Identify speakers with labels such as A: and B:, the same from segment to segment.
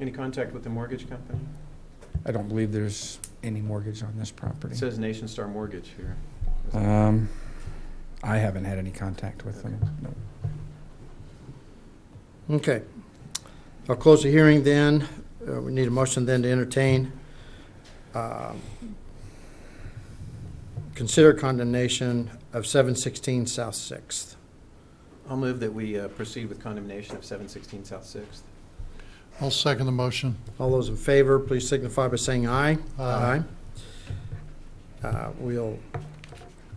A: Any contact with the mortgage company?
B: I don't believe there's any mortgage on this
A: It
B: property.
A: says Nation Star Mortgage here. Uh,
B: Um, I haven't had any contact with them, no.
C: Okay. I'll close the hearing then. Uh, We need a motion then to entertain. um, Consider condemnation of 716 South Sixth.
A: I'll move that we uh, proceed with condemnation of 716 South Sixth.
D: I'll second the motion.
C: All those in favor, please signify by saying aye.
D: Aye.
C: Aye. Uh, We'll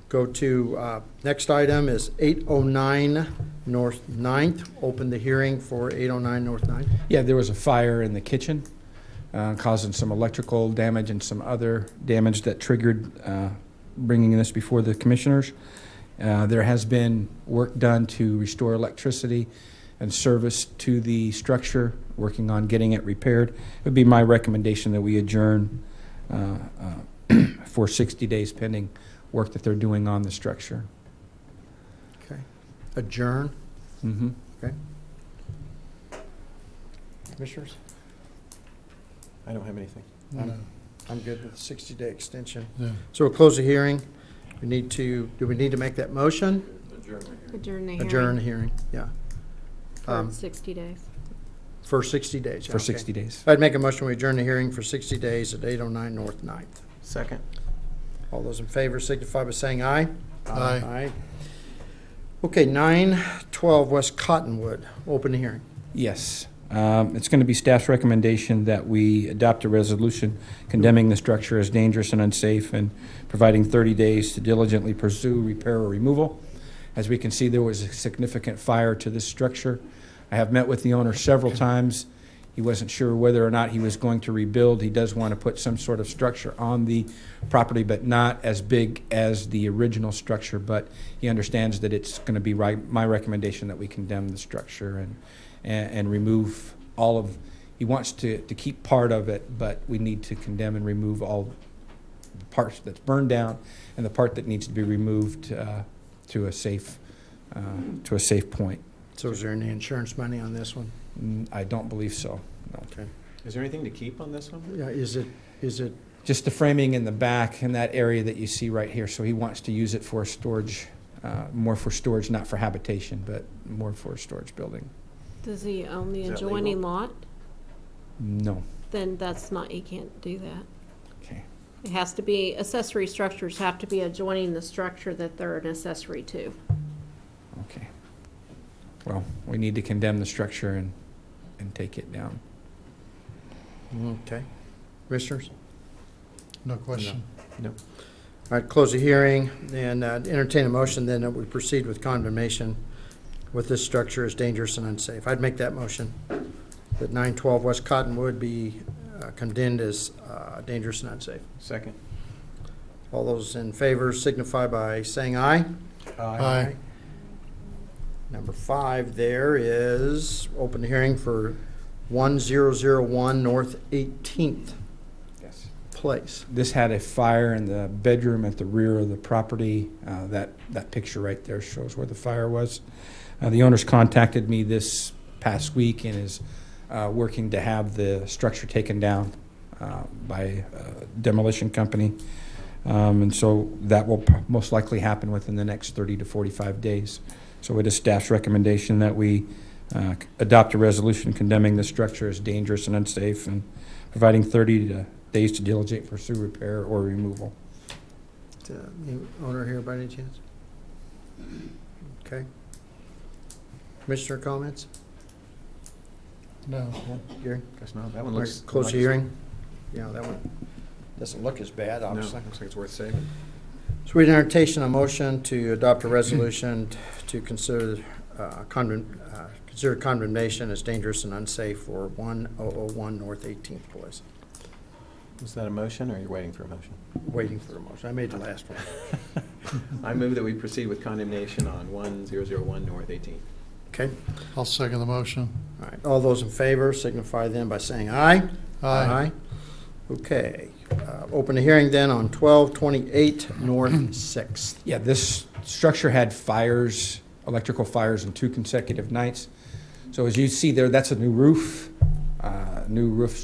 C: go to, uh, next item is 809 North Ninth. Open the hearing for 809 North Ninth.
B: Yeah, there was a fire in the kitchen, uh, causing some electrical damage and some other damage that triggered uh, bringing this before the commissioners. Uh, There has been work done to restore electricity and service to the structure, working on getting it repaired. It would be my recommendation that we adjourn uh, uh, for 60 days pending work that they're doing on the structure.
C: Okay. Adjourn.
B: Mm-hmm.
C: Commissioners?
A: I don't have anything.
C: No. I'm good with the 60-day extension.
D: Yeah.
C: So we'll close the hearing. We need to, do we need to make that motion?
E: Adjourn the hearing.
C: Adjourn the hearing, yeah,
E: For
C: um,
E: 60 days.
C: for 60 days. yeah,
B: For
C: okay.
B: 60 days.
C: I'd make a motion, we adjourn the hearing for 60 days at 809 North Ninth.
A: Second.
C: All those in favor signify by saying aye.
D: Aye.
C: Aye. Okay, 912 West Cottonwood, open the hearing.
B: Yes. Um, It's going to be staff's recommendation that we adopt a resolution condemning the structure as dangerous and unsafe and providing 30 days to diligently pursue repair or removal. As we can see, there was a significant fire to this structure. I have met with the owner several times. He wasn't sure whether or not he was going to rebuild. He does want to put some sort of structure on the property, but not as big as the original structure. But he understands that it's going to be right, my recommendation that we condemn the structure and and, and remove all of, he wants to, to keep part of it, but we need to condemn and remove all the parts that's burned down and the part that needs to be removed uh, to a safe, uh, to a safe point.
C: So is there any insurance money on this one?
B: Mm, I don't believe so. no.
A: Is there anything to keep on this one?
C: Yeah, is it, is it,
B: Just the framing in the back and that area that you see right here, so he wants to use it for storage, uh, more for storage, not for habitation, but more for a storage building.
E: Does he own the
A: Is that
E: adjoining lot?
B: No.
E: Then that's not, you can't do that.
B: Okay.
E: It has to be, accessory structures have to be adjoining the structure that they're an accessory to.
B: Okay. Well, we need to condemn the structure and, and take it down.
C: okay. Commissioners?
D: No question.
C: All right, close the hearing and uh, entertain a motion then that we proceed with condemnation with this structure as dangerous and unsafe. I'd make that motion, that 912 West Cottonwood be uh, condemned as uh, dangerous and unsafe.
A: Second.
C: All those in favor signify by saying aye.
D: Aye.
C: Number five there is open the hearing for 1001 North 18th
B: Yes.
C: Place.
B: This had a fire in the bedroom at the rear of the property. Uh, That, that picture right there shows where the fire was. Uh, The owners contacted me this past week and is uh, working to have the structure taken down uh, by a demolition company. Um, And so that will p- most likely happen within the next 30 to 45 days. So it is staff's recommendation that we uh, c- adopt a resolution condemning the structure as dangerous and unsafe and providing 30 to days to diligent pursue repair or removal.
C: Uh, the Owner here by any chance? Okay. Commissioner comments?
D: No.
C: Gary?
A: Guess not. That one looks.
C: Close the
A: the
C: hearing? Yeah, that one doesn't look as bad,
A: No, looks
C: obviously.
A: like it's worth saving.
C: So we entertain a motion to adopt a resolution t- to consider uh, condemn, uh, consider condemnation as dangerous and unsafe for 1001 North 18th Place.
A: Is that a motion or are you waiting for a motion?
C: Waiting for a motion. I made the last one.
A: I move that we proceed with condemnation on 1001 North 18th.
C: Okay?
D: I'll second the motion.
C: All right. All those in favor signify then by saying aye.
D: Aye.
C: Okay. Uh, Open the hearing then on 1228 North 6th.
B: Yeah, this structure had fires, electrical fires, in two consecutive nights. So as you see there, that's a new roof. Uh, new roof